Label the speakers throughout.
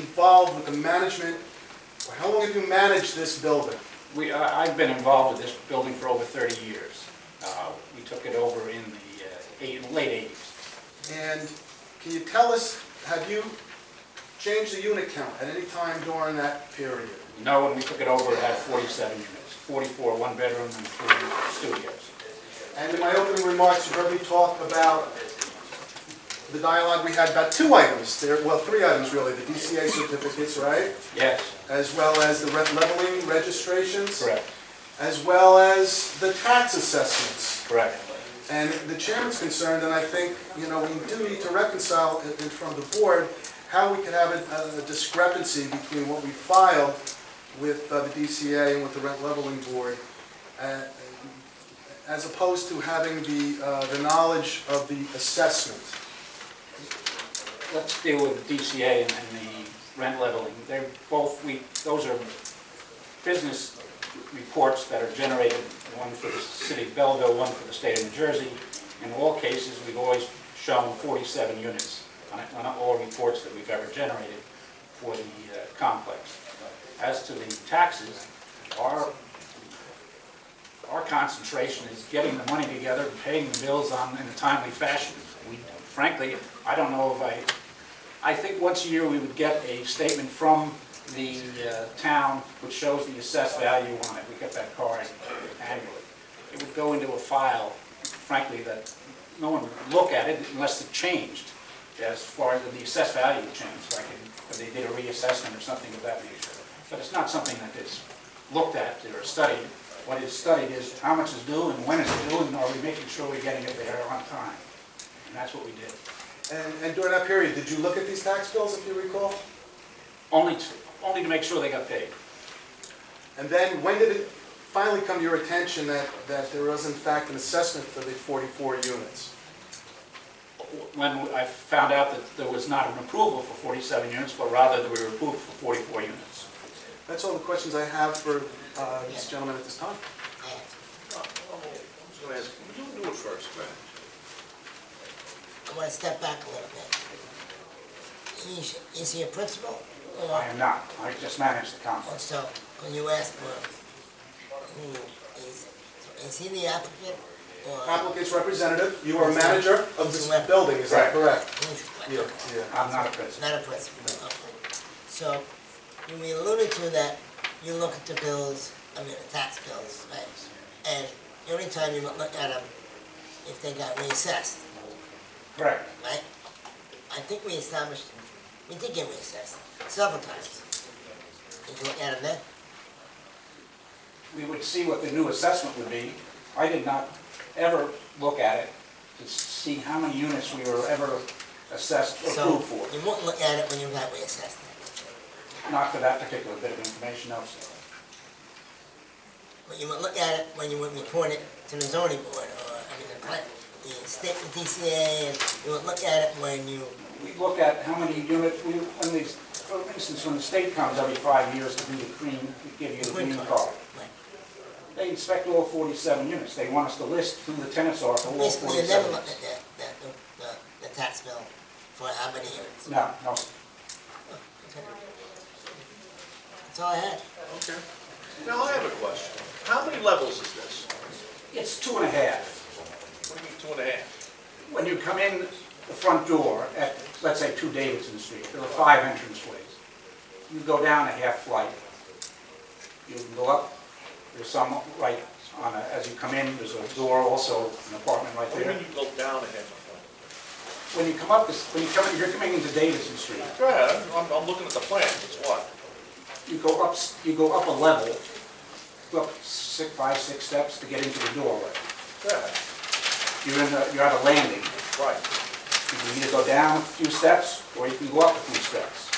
Speaker 1: involved with the management? Or how long have you managed this building?
Speaker 2: We, I- I've been involved with this building for over 30 years. Uh, We took it over in the uh, eight- late 80s.
Speaker 1: And can you tell us, have you changed the unit count at any time during that period?
Speaker 2: No, when we took it over, it had 47 units, 44 one-bedroom and three studios.
Speaker 1: And in my opening remarks, you heard me talk about the dialogue we had about two items, there, well, three items really, the DCA certificates, right?
Speaker 2: Yes,
Speaker 1: As well as the rent leveling registrations.
Speaker 2: correct,
Speaker 1: As well as the tax assessments.
Speaker 2: correct.
Speaker 1: And the chairman's concerned, and I think, you know, we do need to reconcile in in front of the board how we could have a a discrepancy between what we filed with uh, the DCA and with the rent leveling board, uh, as opposed to having the, uh, the knowledge of the assessment.
Speaker 2: Let's deal with the DCA and and the rent leveling. They're both, we, those are business reports that are generated, one for the city of Belleville, one for the state of New Jersey. In all cases, we've always shown 47 units on on all reports that we've ever generated for the uh, complex. As to the taxes, our, our concentration is getting the money together, paying the bills on, in a timely fashion. We Frankly, I don't know if I, I think once a year we would get a statement from the uh, town which shows the assessed value on it. We get that card annually. It would go into a file, frankly, that no one would look at it unless it changed as far as the assessed value changed, like if they did a reassessment or something of that nature. But it's not something that is looked at or studied. What is studied is how much is due and when it's due and are we making sure we're getting it there on time? And that's what we did.
Speaker 1: And and during that period, did you look at these tax bills, if you recall?
Speaker 2: Only to, only to make sure they got paid.
Speaker 1: And then, when did it finally come to your attention that, that there was in fact an assessment for the 44 units?
Speaker 2: When I found out that there was not an approval for 47 units, but rather that we were approved for 44 units.
Speaker 1: That's all the questions I have for uh, this gentleman at this time.
Speaker 3: I was gonna ask, you do it first, man.
Speaker 4: I want to step back a little bit. Is, is he a principal? Or-
Speaker 2: I am not, I just managed the
Speaker 4: Or
Speaker 2: complex.
Speaker 4: so, when you ask for who is, is he the applicant or
Speaker 1: Applicant's representative, you are manager of this building, is that correct?
Speaker 4: who's?
Speaker 1: Yeah, yeah.
Speaker 2: I'm not a president.
Speaker 4: Not a principal, okay. So, you we alluded to that, you look at the bills, I mean, the tax bills, right? And the only time you look at them, if they got reassessed,
Speaker 2: Correct.
Speaker 4: right? I think we established, we did get reassessed several times. Did you look at them then?
Speaker 2: We would see what the new assessment would be. I did not ever look at it to see how many units we were ever assessed,
Speaker 4: So
Speaker 2: approved for.
Speaker 4: you won't look at it when you got reassessed then,
Speaker 2: Not for that particular bit of information, no, sir.
Speaker 4: but you would look at it when you would report it to the zoning board or, I mean, the plan, the state, the DCA, and you would look at it when you,
Speaker 2: We look at how many units, we, when these, for instance, when the state comes every five years to do the green, to give you the green card.
Speaker 4: right?
Speaker 2: They inspect all 47 units. They want us to list who the tenants are for all
Speaker 4: Basically, you never
Speaker 2: 47.
Speaker 4: looked at the, the, the, the- the tax bill for how many years.
Speaker 2: No, no.
Speaker 4: That's all I had.
Speaker 3: Okay. Now, I have a question. How many levels is this?
Speaker 2: It's two and a half.
Speaker 3: What do you mean, two and a half?
Speaker 2: When you come in the front door at, let's say, 2 Davidson Street, there are five entranceways. You go down a half flight. You can go up, there's some right on, a- as you come in, there's a door also, an apartment right
Speaker 3: What do you
Speaker 2: there.
Speaker 3: mean you go down a half?
Speaker 2: When you come up, this- when you come, in- you're coming into Davidson Street,
Speaker 3: Go ahead, I'm, I'm looking at the plan, it's what?
Speaker 2: you go up, s- you go up a level, go up six, five, six steps to get into the doorway.
Speaker 3: Go ahead.
Speaker 2: You're in the, you're at a landing.
Speaker 3: Right.
Speaker 2: You can either go down a few steps, or you can go up a few steps.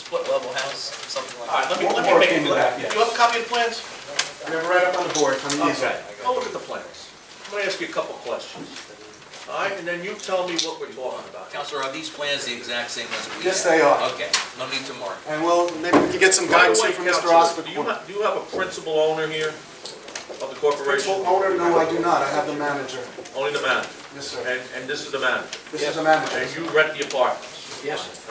Speaker 5: split level house, something like
Speaker 3: All right,
Speaker 5: that.
Speaker 3: let me,
Speaker 2: More-
Speaker 3: let
Speaker 2: more
Speaker 3: me make,
Speaker 2: into that, yes.
Speaker 3: you have a copy of the plans?
Speaker 1: I have it right up on the board, on the easel.
Speaker 3: Okay, I'll look at the plans. I'm gonna ask you a couple questions. All right, and then you tell me what we're talking about.
Speaker 5: Counselor, are these plans the exact same as we have?
Speaker 1: Yes, they are.
Speaker 5: Okay, no need to mark.
Speaker 1: And well, maybe we can get some
Speaker 3: By the
Speaker 1: guidance
Speaker 3: way,
Speaker 1: here from Mr.
Speaker 3: Counselor,
Speaker 1: Osborne.
Speaker 3: Do you have, do you have a principal owner here of the corporation?
Speaker 1: Principal owner, no, I do not, I have the manager.
Speaker 3: Only the manager?
Speaker 1: Yes, sir.
Speaker 3: And, and this is the manager?
Speaker 1: This is the manager.
Speaker 3: And you rent the apartments?
Speaker 2: Yes.